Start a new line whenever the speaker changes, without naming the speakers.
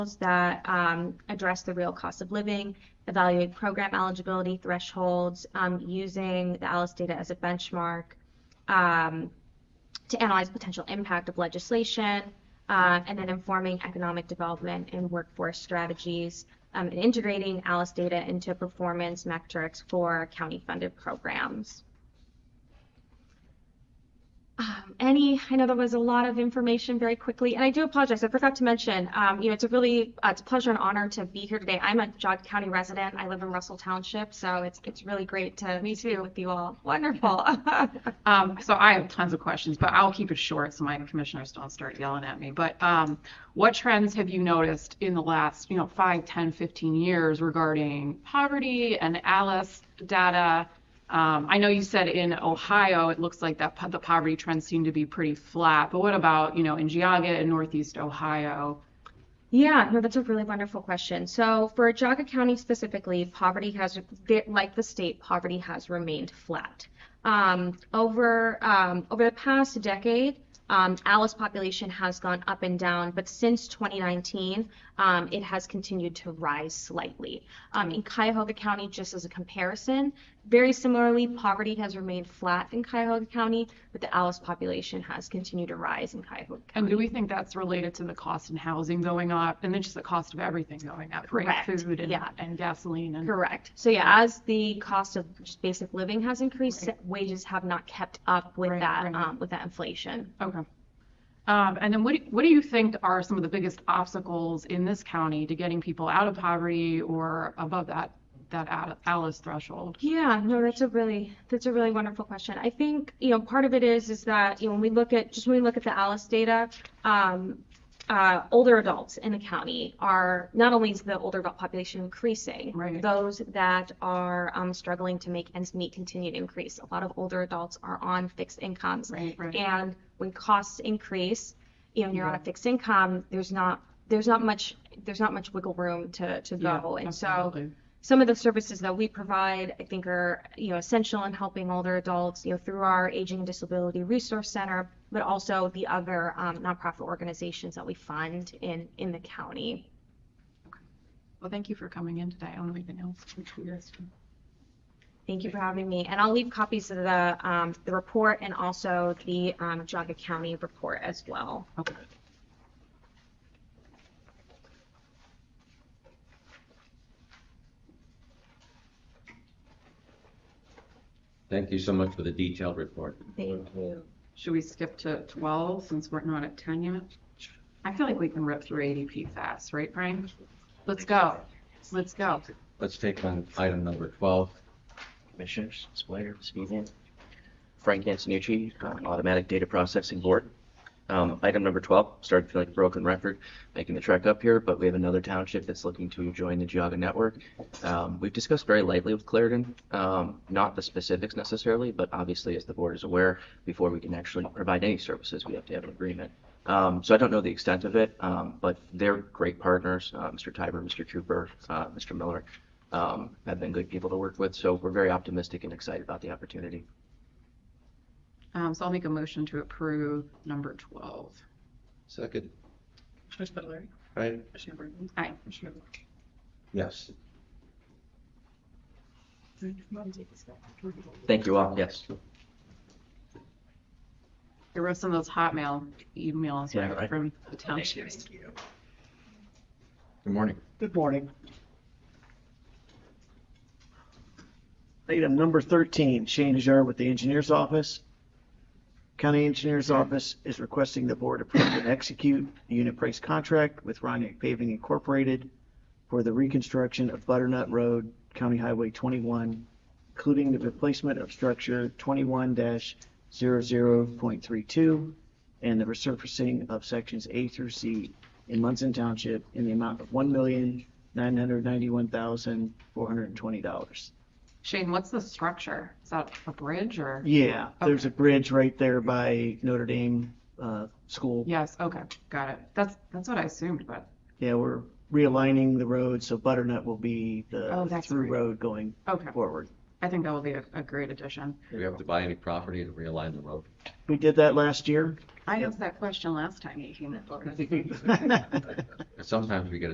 that um, address the real cost of living, evaluate program eligibility thresholds um, using the ALICE data as a benchmark, um, to analyze potential impact of legislation, uh, and then informing economic development and workforce strategies, um, and integrating ALICE data into performance metrics for county-funded programs. Um, any, I know there was a lot of information very quickly, and I do apologize. I forgot to mention, um, you know, it's a really, uh, it's a pleasure and honor to be here today. I'm a Jog County resident. I live in Russell Township, so it's it's really great to meet you with you all. Wonderful.
Um, so I have tons of questions, but I'll keep it short so my commissioners don't start yelling at me. But, um, what trends have you noticed in the last, you know, five, 10, 15 years regarding poverty and ALICE data? Um, I know you said in Ohio, it looks like that po- the poverty trends seem to be pretty flat, but what about, you know, in Geauga and Northeast Ohio?
Yeah, no, that's a really wonderful question. So for Jaga County specifically, poverty has, like the state, poverty has remained flat. Um, over um, over the past decade, um, Alice population has gone up and down, but since 2019, um, it has continued to rise slightly. Um, in Cuyahoga County, just as a comparison, very similarly, poverty has remained flat in Cuyahoga County, but the Alice population has continued to rise in Cuyahoga County.
And do we think that's related to the cost in housing going up and then just the cost of everything going up, right?
Correct.
Food and,
Yeah.
and gasoline and.
Correct. So yeah, as the cost of just basic living has increased, wages have not kept up with
Right,
that,
right.
um, with that inflation.
Okay. Um, and then what, do- what do you think are some of the biggest obstacles in this county to getting people out of poverty or above that, that Al- Alice threshold?
Yeah, no, that's a really that's a really wonderful question. I think, you know, part of it is is that, you know, when we look at just when we look at the Alice data, um, uh, older adults in the county are not only is the older adult population increasing,
Right.
those that are um, struggling to make ends meet continue to increase. A lot of older adults are on fixed incomes.
Right, right.
And when costs increase, you know, and you're on a fixed income, there's not there's not much there's not much wiggle room to to
Yeah,
go. And so
absolutely.
some of the services that we provide, I think, are you know essential in helping older adults, you know, through our Aging and Disability Resource Center, but also the other um, nonprofit organizations that we fund in in the county.
Well, thank you for coming in today. I don't know anything else.
Thank you for having me, and I'll leave copies of the um, the report and also the um, Jaga County report as well.
Okay.
Thank you so much for the detailed report.
Thank you.
Should we skip to 12 since we're not at 10 yet? I feel like we can rip through ADP fast, right, Brian? Let's go. Let's go.
Let's take on item number 12.
Commissioners, it's Blair speaking. Frank Antonucci, uh, Automatic Data Processing Board. Um, Item number 12, started feeling like a broken record making the trek up here, but we have another township that's looking to join the Geogga network. Um, We've discussed very lightly with Clarendon, um, not the specifics necessarily, but obviously, as the board is aware, before we can actually provide any services, we have to have an agreement. Um, So I don't know the extent of it, um, but they're great partners, uh, Mr. Tiber, Mr. Cooper, uh, Mr. Miller um, have been good people to work with. So we're very optimistic and excited about the opportunity.
Um, so I'll make a motion to approve number 12.
Second.
Commissioner Spudler.
Right?
Commissioner Burton. Aye. Commissioner
Yes.
Thank you all. Yes.
I wrote some of those Hotmail emails
Yeah, right.
from the townships.
Good morning.
Good morning. Item number 13, Shane Hajar with the Engineers Office. County Engineers Office is requesting the board approve and execute a unit price contract with Ronick Paving Incorporated for the reconstruction of Butternut Road, County Highway 21, including the replacement of structure 21-00.32 and the resurfacing of sections A through C in Munson Township in the amount of one million, nine hundred ninety-one thousand, four hundred and twenty dollars.
Shane, what's the structure? Is that a bridge or?
Yeah, there's a bridge right there by Notre Dame, uh, school.
Yes, okay, got it. That's, that's what I assumed, but,
Yeah, we're realigning the road, so Butternut will be
Oh,
the
that's
through
right.
road going
okay.
forward.
I think that will be a, a great addition.
Do we have to buy any property to realign the road?
We did that last year.
I asked that question last time you came in.
Sometimes we get